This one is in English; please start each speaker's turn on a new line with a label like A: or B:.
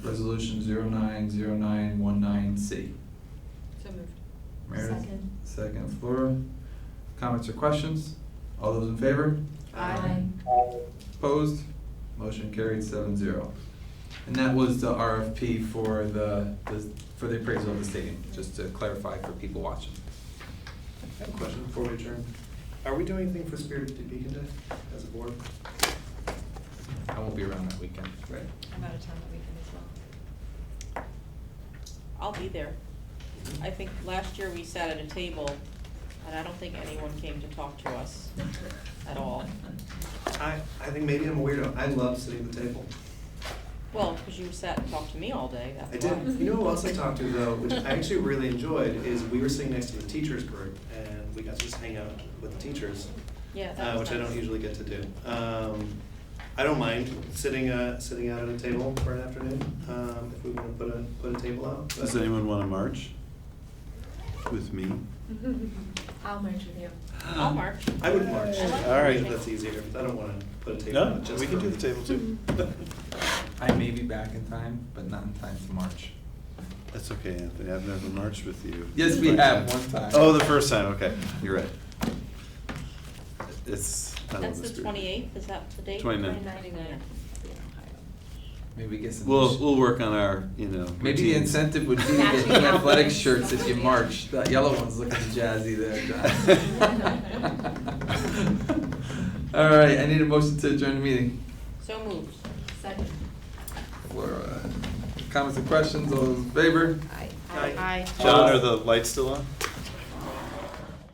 A: Resolution 090919C.
B: So moved.
A: Meredith?
C: Second.
A: Second, Flora. Comments or questions? All those in favor?
B: Aye.
A: Opposed? Motion carried seven zero. And that was the RFP for the, the- for the appraisal of the stadium, just to clarify for people watching.
D: I have a question before we adjourn. Are we doing anything for Spirit of Topeka Day as a board?
A: I won't be around that weekend.
D: Right.
B: I'm out of town that weekend as well.
E: I'll be there. I think last year we sat at a table, and I don't think anyone came to talk to us at all.
D: I, I think maybe I'm a weirdo. I love sitting at the table.
E: Well, because you sat and talked to me all day,
D: I
E: that's why.
D: did, you know who else I talked to though, which I actually really enjoyed, is we were sitting next to the teachers group and we got to just hang out with the teachers.
E: Yeah, that
D: uh,
E: was
D: which I don't
E: nice.
D: usually get to do. Um, I don't mind sitting, uh, sitting out at a table for an afternoon, um, if we wanna put a, put a table out. but-
F: Does anyone want to march with me?
C: I'll merge with you.
E: I'll march.
D: I would march.
E: I like
F: All right.
D: If That's easier, but I don't wanna put a table
F: No,
D: out just
F: we can
D: for
F: do
D: me.
F: the table too.
A: I may be back in time, but not in time to march.
F: That's okay, Anthony, I've never marched with you.
A: Yes, we have, one time.
F: Oh, the first time, okay, you're right. It's, I love
E: That's
F: the
E: the
F: spirit.
E: twenty-eighth, is that the date?
F: 29th.
C: 29th.
A: Maybe get some.
F: We'll, we'll work on our, you know.
A: Maybe the
F: routines.
A: incentive would be to get new
C: Matching
A: athletic
C: outfits.
A: shirts if you march. That yellow one's looking jazzy there, John. All right, I need a motion to adjourn the meeting.
E: So moved.
C: Second.
A: Laura, Comments and uh, questions, all those in favor?
C: Aye.
D: Aye.
F: John, are the lights still on?